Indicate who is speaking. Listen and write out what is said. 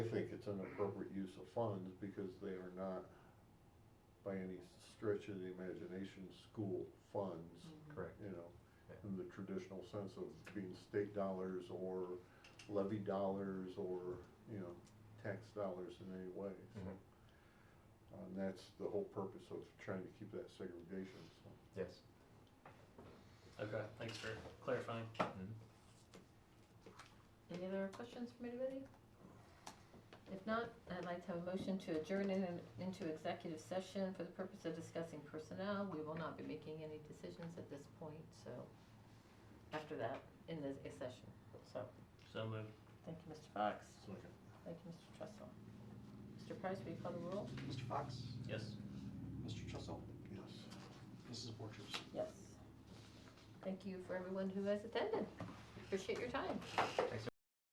Speaker 1: an appropriate use of funds because they are not, by any stretch of the imagination, school funds,
Speaker 2: Mm-hmm.
Speaker 3: Correct.
Speaker 1: you know,
Speaker 3: Yeah.
Speaker 1: in the traditional sense of being state dollars or levy dollars or, you know, tax dollars in any way. so.
Speaker 3: Mhm.
Speaker 1: And that's the whole purpose of trying to keep that segregation, so.
Speaker 3: Yes.
Speaker 4: Okay, thanks for clarifying.
Speaker 3: Mhm.
Speaker 2: Any other questions from anybody? If not, I'd like to have a motion to adjourn in- into executive session for the purpose of discussing personnel. We will not be making any decisions at this point, so, after that, in this session. So,
Speaker 4: So moved.
Speaker 2: thank you, Mr. Fox.
Speaker 1: Second.
Speaker 2: Thank you, Mr. Trestle. Mr. Price, will you call the roll?
Speaker 5: Mr. Fox,
Speaker 4: Yes.
Speaker 5: Mr. Trussell,
Speaker 1: Yes.
Speaker 5: Mrs. Borchers.
Speaker 2: Yes. Thank you for everyone who has attended. Appreciate your time.
Speaker 3: Thanks,